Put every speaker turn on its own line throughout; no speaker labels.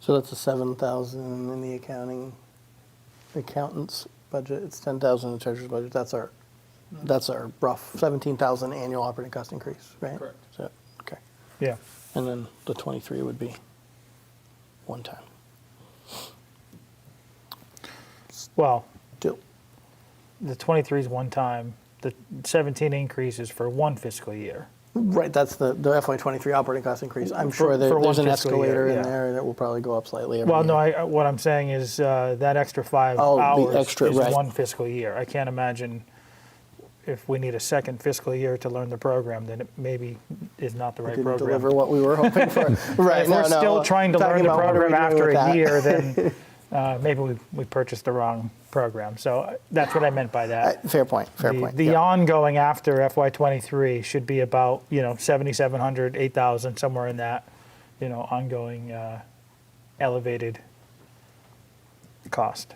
So that's a seven thousand in the accounting, accountant's budget, it's ten thousand in the treasurer's budget, that's our, that's our rough seventeen thousand annual operating cost increase, right?
Correct.
So, okay,
Yeah.
and then the twenty-three would be one time,
Well,
two,
the 23 is one time. The 17 increase is for one fiscal year.
right, that's the, the FY twenty-three operating cost increase, I'm
For-
sure there,
for
there's
one
an
fiscal year,
escalator in
yeah.
there that will probably go up slightly every
Well, no,
year.
I, what I'm saying is uh, that extra five
Oh, the
hours
extra,
is
right.
one fiscal year. I can't imagine if we need a second fiscal year to learn the program, then it maybe is not the right
Didn't
program.
deliver what we were hoping for, right,
if
no,
we're
no,
still
I'm
trying to
talking
learn the
about what are we
program
doing
after
with
a
that.
year, then uh, maybe we, we purchased the wrong program. So uh, that's what I meant by that.
Uh, Fair point, fair
the,
point,
the
yeah.
ongoing after FY23 should be about you know 7,700, 8,000, somewhere in that you know ongoing uh, elevated cost.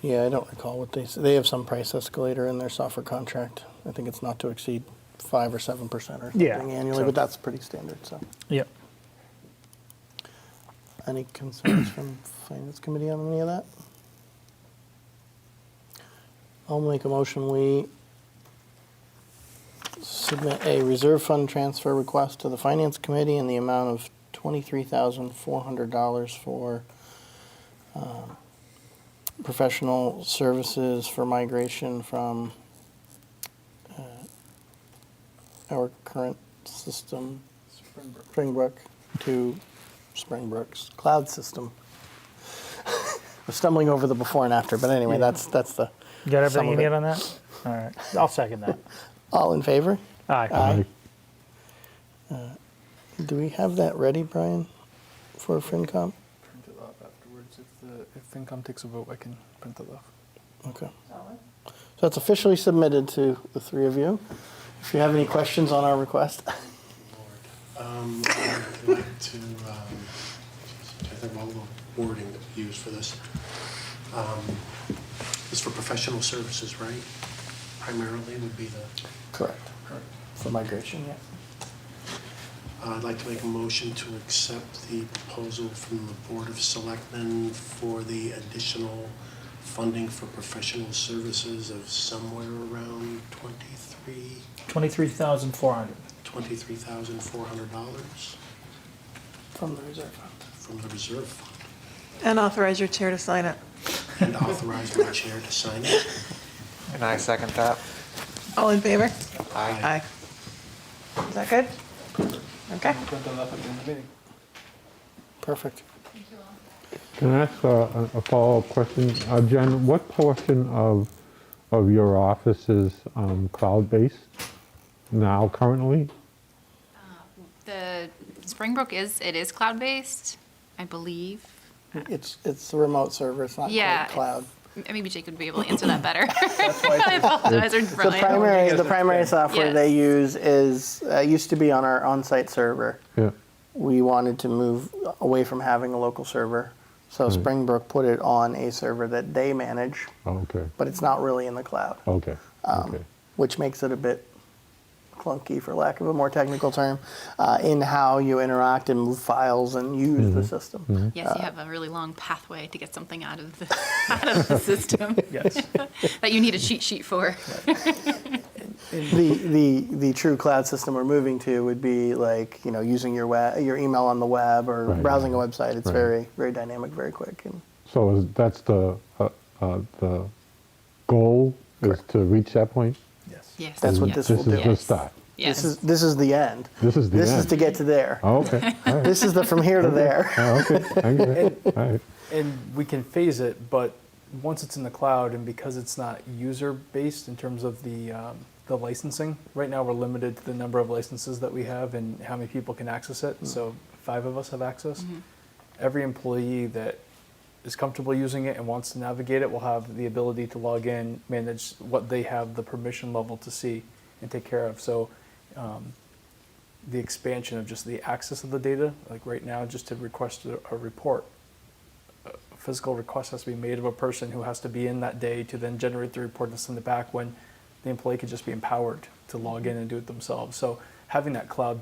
Yeah, I don't recall what they, s- they have some price escalator in their software contract. I think it's not to exceed five or seven percent or
Yeah,
something annually,
so-
but that's pretty standard, so.
Yep.
Any concerns from finance committee on any of that? I'll make a motion, we submit a reserve fund transfer request to the finance committee in the amount of twenty-three thousand four hundred dollars for um, professional services for migration from uh, our current system,
Springbrook.
Springbrook to Springbrook's cloud system. I'm stumbling over the before and after, but anyway, that's that's the.
You got
some
everything you
of
need
it.
on that? All right. I'll second that.
All in favor?
Aye.
Do we have that ready, Brian, for FinCom?
Print it off afterwards. If the if FinCom takes a vote, I can print it off.
Okay. So it's officially submitted to the three of you. If you have any questions on our request,
Um, I'd like to, um, I think all the wording that we use for this, um, is for professional services, right? Primarily would be the,
correct for migration. Yeah.
uh, I'd like to make a motion to accept the proposal from the Board of Selectmen for the additional funding for professional services of somewhere around twenty-three,
23,400.
twenty-three thousand four hundred dollars
From the reserve fund.
from the reserve fund.
And authorize your chair to sign it.
and authorize my chair to sign it.
And I second that.
All in favor?
Aye.
Is that good? Okay.
I'll print it off at the end of the meeting.
Perfect.
Can I ask a, a follow-up question? Uh, Jen, what portion of, of your office is um, cloud-based now currently?
The Springbrook is, it is cloud-based, I believe.
It's it's a remote server. It's not
Yeah.
quite cloud.
M- Maybe Jake would be able to answer that better.
That's why I
I apologize, or
The
Brian.
primary,
think
the
it's a
primary
thing.
software
Yes.
they use is uh, used to be on our on-site server.
Yeah,
We wanted to move away from having a local server, so Springbrook put it on a server that they manage,
Oh, okay,
but um, it's not really in the cloud,
okay, okay.
which makes it a bit clunky, for lack of a more technical term, uh, in how you interact and move files and use
Mm-hmm.
the system.
Yes,
uh,
you have a really long pathway to get something out of the, out of the system
Yes.
that you need a cheat sheet for.
the the the true cloud system we're moving to would be like you know using your web your email on the web or
Right,
browsing
right,
a website. It's
right.
very very dynamic, very quick. And
So is, that's the, uh, uh, the goal is to reach that point?
Yes.
Yes.
That's what
yes,
this
This is
will
the
yes.
start?
this
Yes.
is this is the end.
This is the
This is
end?
to get to there.
Oh, okay, all right,
This is the from here to there.
Oh, okay, I get it, all right.
And we can phase it, but once it's in the cloud and because it's not user based in terms of the um, the licensing, right now we're limited to the number of licenses that we have and how many people can access it. So five of us have access. Every employee that is comfortable using it and wants to navigate it will have the ability to log in, manage what they have the permission level to see and take care of. So um, the expansion of just the access of the data, like right now, just to request a, a report, a physical request has to be made of a person who has to be in that day to then generate the report and send it back when the employee could just be empowered to log in and do it themselves. So having that cloud